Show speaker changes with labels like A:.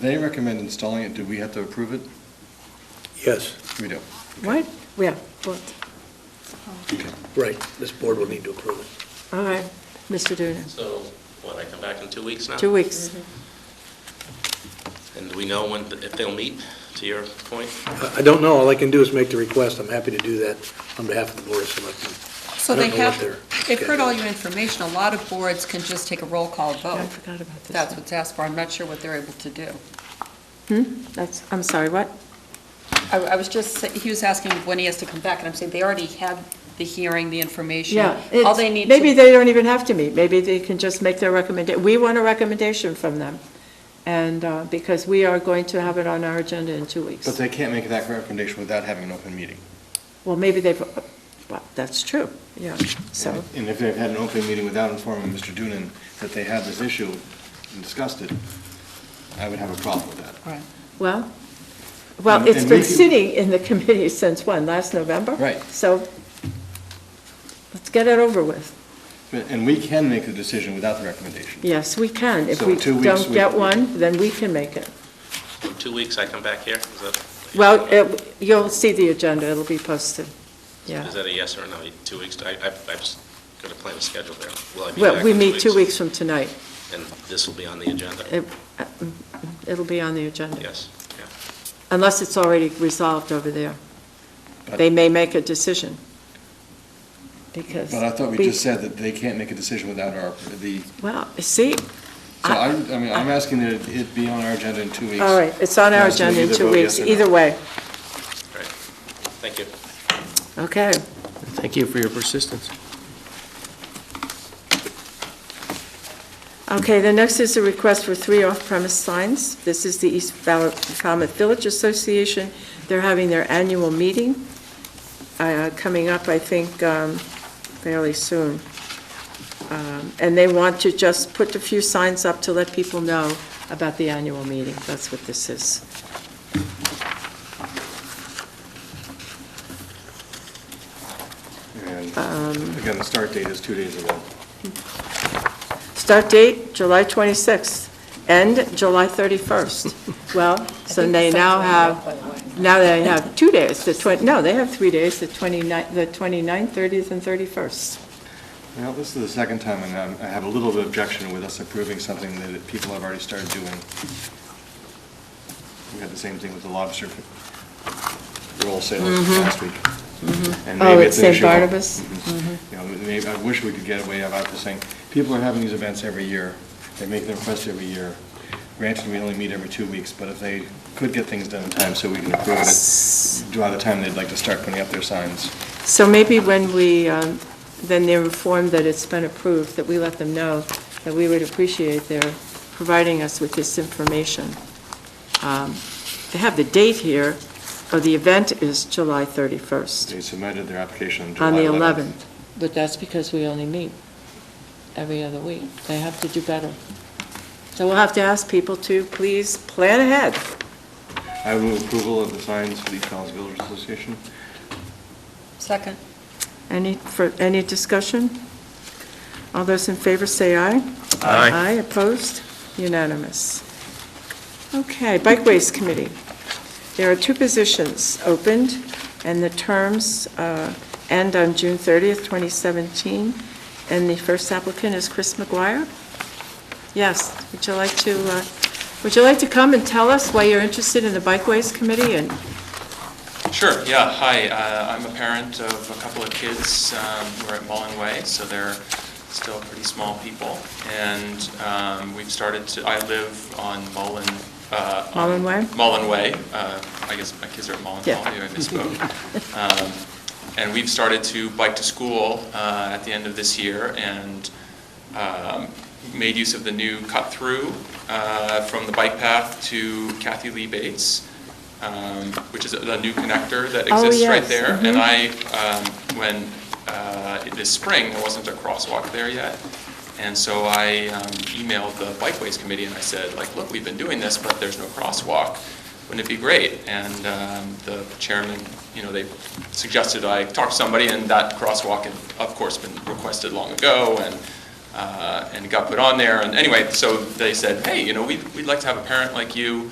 A: They recommend installing it, do we have to approve it?
B: Yes,
A: We do.
C: What? Yeah, what?
B: right, this board will need to approve it.
C: All right, Mr. Duda,
D: So, what, I come back in two weeks now?
C: two weeks.
D: And do we know when, if they'll meet, to your point?
B: I- I don't know, all I can do is make the request, I'm happy to do that on behalf of the Board of Selectmen.
E: So
B: I don't
E: they
B: know what
E: have,
B: they're-
E: they've heard all your information. A lot of boards can just take a roll call
C: I
E: vote.
C: forgot about this.
E: Oh. That's what's asked for. I'm not sure what they're able to do.
C: Hmm? That's, I'm sorry, what?
E: I, I was just, sa- he was asking when he has to come back, and I'm saying they already had the hearing, the information.
C: Yeah.
E: All
C: it's-
E: they need
C: Maybe
E: to,
C: they don't even have to meet, maybe they can just make their recommendation. We want a recommendation from them, and, uh, because we are going to have it on our agenda in two
A: But
C: weeks.
A: they can't make that recommendation without having an open meeting.
C: Well, maybe they've, well, that's true, yeah, so,
A: And if they've had an open meeting without informing Mr. Dunan that they had this issue and discussed it, I would have a problem with that.
E: Right.
C: well, well,
A: And-
C: it's
A: and we
C: been
A: can-
C: sitting in the committee since when, last November?
A: Right.
C: So, let's get it over with.
A: But- And we can make the decision without the recommendation.
C: Yes, we can. If
A: So
C: we
A: two weeks
C: don't
A: we-
C: get one, then we can make it.
D: In two weeks, I come back here? Is that?
C: Well, it- you'll see the agenda, it'll be posted. Yeah.
D: Is that a yes or a no? Two weeks, I, I- I've just got to plan a schedule there. Will I be back
C: Well, we
D: in
C: meet two weeks from tonight.
D: And this will be on the agenda?
C: It- uh, mm, It'll be on the agenda,
D: Yes, yeah.
C: unless it's already resolved over there. They may make a decision, because...
A: But I thought we just said that they can't make a decision without our, the,
C: Well, see,
A: so I, I mean, I'm asking that it be on our agenda in two weeks.
C: all right, it's on
A: And I
C: our
A: was gonna
C: agenda in
A: either
C: two
A: vote yes
C: weeks,
A: or no.
C: either way.
D: All right. Thank you.
C: Okay.
F: Thank you for your persistence.
C: Okay, the next is a request for three off-premise signs. This is the East Fal- Falmouth Village Association. They're having their annual meeting uh, coming up, I think, um, fairly soon. Um, And they want to just put a few signs up to let people know about the annual meeting. That's what this is.
A: And
C: Um,
A: again, the start date is two days ago.
C: Start date, July 26th. End, July 31st. Well, so they now have, now they have two days, the 20, no, they have three days, the 29th, the 29th, 30th, and 31st.
A: Well, this is the second time, and um, I have a little bit of objection with us approving something that people have already started doing. We had the same thing with the lobster f- roll sale last week. And
C: Mm-hmm. Oh,
A: maybe
C: at
A: an
C: St.
A: issue.
C: Barnabas? Mm-hmm.
A: Mhm. You know, maybe, I wish we could get away about this thing. People are having these events every year, they make their requests every year. Granted, we only meet every two weeks, but if they could get things done in time so we can approve it, by the time they'd like to start putting up their signs.
C: So maybe when we, um, then they're informed that it's been approved, that we let them know that we would appreciate their providing us with this information. Um, They have the date here, or the event is July 31st.
A: They submitted their application on July
C: On the
A: 11th.
C: 11th. But that's because we only meet every other week. They have to do better. So we'll have to ask people to please plan ahead.
A: I move approval of the signs for the East Falls Village Association.
E: Second.
C: Any, for, any discussion? All those in favor say aye.
F: Aye.
C: Aye, opposed? Unanimous. Okay, Bikeways Committee. There are two positions opened, and the terms uh, end on June 30th, 2017, and the first applicant is Chris McGuire. Yes, would you like to, uh, would you like to come and tell us why you're interested in the Bikeways Committee and
G: Sure, yeah, hi, uh, I'm a parent of a couple of kids, um, we're at Mullen Way, so they're still pretty small people, and um, we've started to, I live on Mullen. uh, on-
C: Mullen Way?
G: Mullen Way, uh, I guess my kids are at Mullen
C: Yeah.
G: Hall, maybe I misspoke. Um, And we've started to bike to school uh, at the end of this year, and um, made use of the new cut-through uh, from the bike path to Kathy Lee Bates, um, which is the new connector that
C: Oh,
G: exists right
C: yes,
G: there.
C: mhm.
G: And I, um, when, uh, this spring, there wasn't a crosswalk there yet, and so I um, emailed the Bikeways Committee and I said, like, look, we've been doing this, but there's no crosswalk. Wouldn't it be great? And um, the chairman, you know, they suggested I talk to somebody, and that crosswalk had, of course, been requested long ago, and uh, and it got put on there. And anyway, so they said, hey, you know, we'd, we'd like to have a parent like you